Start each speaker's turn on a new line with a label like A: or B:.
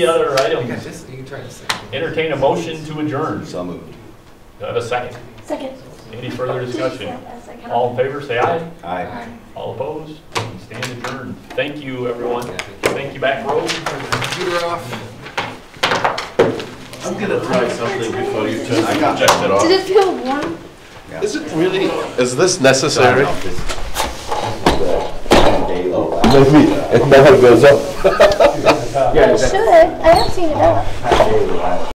A: Any other items?
B: this, you can try this.
A: Entertain a motion to adjourn.
C: So moved.
A: Do I have a second?
D: Second.
A: Any further discussion?
D: Yes, I can.
A: All in favor, say aye.
C: Aye.
A: All opposed? Stand adjourned. Thank you, everyone. Thank you, back row.
B: Computer off.
E: I'm gonna try something before you turn
C: I got
E: the projector
D: Did
E: off.
D: it feel warm?
E: Is it really, is this necessary?
C: Maybe, it never goes up.
D: It should. I have seen it up.